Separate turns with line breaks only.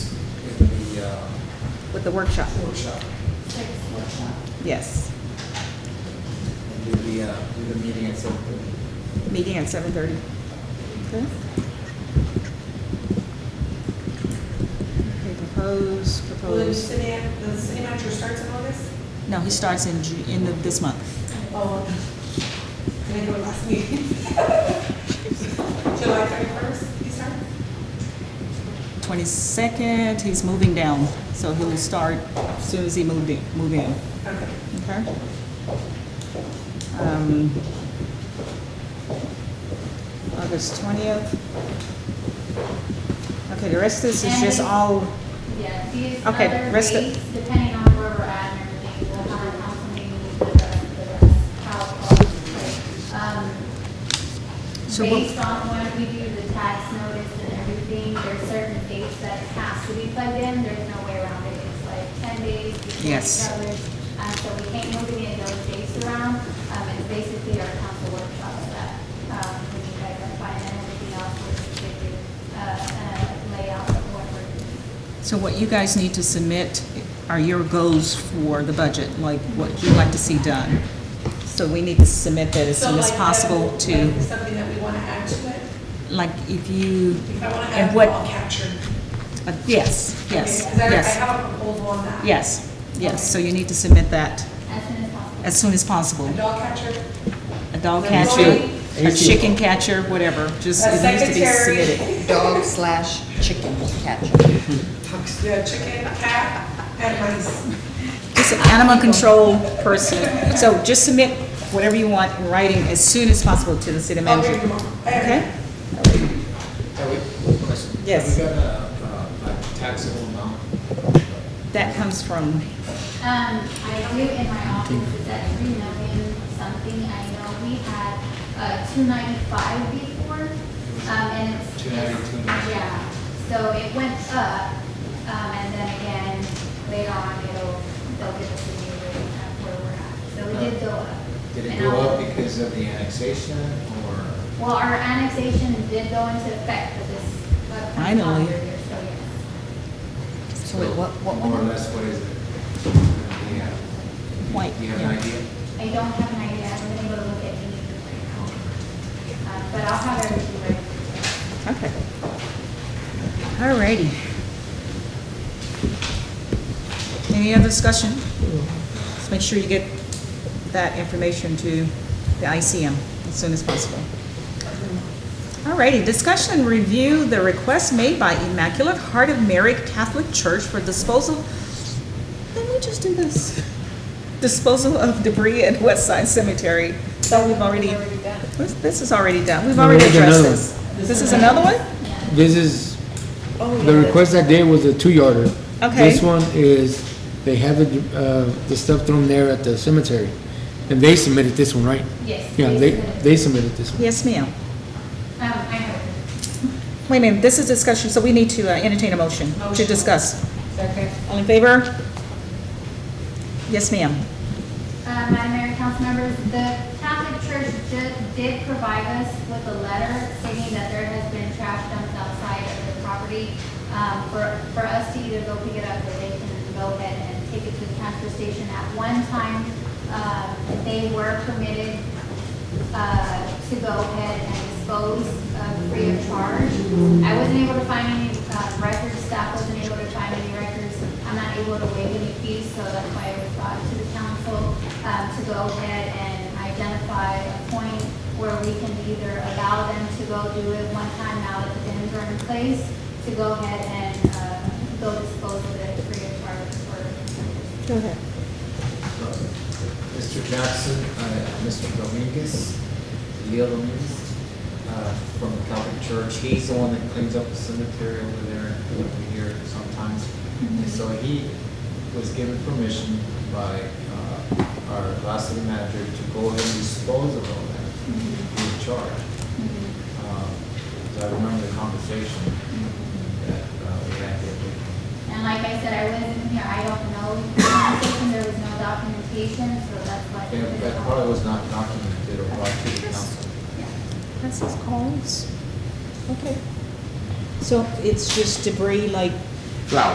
with the workshop.
uh, workshop.
Sixth workshop.
Yes,
And do the, uh, do the meeting at seven thirty.
meeting at seven thirty. Okay, Okay. propose,
Will the
propose.
city, the city manager starts in August?
No, he starts in Ju, in the, this month.
Oh, can I go last meeting? July thirty-first, you start?
Twenty-second, he's moving down, so he'll start as soon as he moved in, move in.
Okay.
Okay. Um, August 20th. Okay, the rest of this is just all,
Yeah, these
Okay,
other
rest of-
rates, depending on where we're at and everything, we'll have a council meeting with the rest, the rest, how, um,
So what-
based on when we do the tax notice and everything, there's certain dates that it has to be plugged in, there's no way around it, it's like ten days before
Yes.
the others. Um, so we can't move any of those dates around, um, it's basically our council workshops that, um, we can identify and everything else, we're just gonna do, uh, uh, layout of what we're doing.
so what you guys need to submit are your goals for the budget, like what you'd like to see done. So we need to submit that as
So,
soon as
like, um,
possible
that-
to,
like, Something that we want to add to it?
like if you,
If I want to
And
add
what-
all captured.
uh, yes, yes,
Because I I
yes,
have a proposal on that.
yes, yes. So you need to submit that
As soon as possible.
as soon as possible.
A dog catcher,
A dog
An
catcher,
employee.
a chicken catcher, whatever, just,
A
it needs to be
secretary.
submitted.
Dog slash chicken catcher.
yeah, chicken, cat, and mice.
Just an animal control person. So just submit whatever you want in writing as soon as possible to the city
I'll bring
manager.
them all.
Okay?
Are we, one question?
Yes.
Have we got a, uh, like taxable amount?
That comes from,
Um, I believe in my office is at three million something. I know we had, uh, two ninety-five before, um, and it's.
290, 290.
Yeah, so it went up, um, and then again, later on, it'll, they'll give us a new rate of where we're at. So it did go up.
Did it
And
go
I'll-
up because of the annexation or?
Well, our annexation did go into effect for this. uh,
Finally.
calendar year, So yes.
So wait, what, what
More or
one?
less, what is it? Yeah.
White,
Do you have
yeah.
an idea?
I don't have an idea, I'm gonna go look at these right now. Uh, But I'll have everything ready.
okay. Alrighty. Any other discussion? Just make sure you get that information to the ICM as soon as possible. Alrighty, discussion and review the request made by Immaculate Heart of Mary Catholic Church for disposal. Didn't we just do this? Disposal of debris at West Side Cemetery. So we've already, This- this is already done. We've
No,
already
there's
addressed
another
this. This is another one?
This is, the request I did was a two-yarder.
Okay.
This one is, they have the, uh, the stuff thrown there at the cemetery, and they submitted this one, right?
Yes.
Yeah, they, they submitted this one.
Yes, ma'am.
Um, I heard.
Wait a minute, this is discussion, so we need to uh, entertain a motion to
Motion.
discuss.
Second.
All in favor? Yes, ma'am.
Uh, Madam Mayor, council members, the Catholic Church ju- did provide us with a letter stating that there has been trash dumped outside of the property. Um, for, for us to either go pick it up or they can go ahead and take it to the transfer station. At one time, uh, they were permitted uh, to go ahead and dispose uh, free of charge. I wasn't able to find any uh, records, staff wasn't able to find any records. I'm not able to waive any fees, so that's why it was brought to the council uh, to go ahead and identify a point where we can either allow them to go do it one time now that the bins are in place, to go ahead and uh, go dispose of it free of charge for
Go ahead.
Mr. Jackson, uh, Mr. Dominguez, Leo Dominguez, uh, from the Catholic Church. He's the one that cleans up the cemetery over there, over here sometimes. And so he was given permission by uh, our last city manager to go ahead and dispose of all that, in charge. Um, So I remember the conversation that uh, we had there.
And like I said, I wasn't here, I don't know the conversation, there was no documentation, so that's why.
Yeah, but that probably was not documented or brought to the council.
That's his calls. Okay. So it's just debris like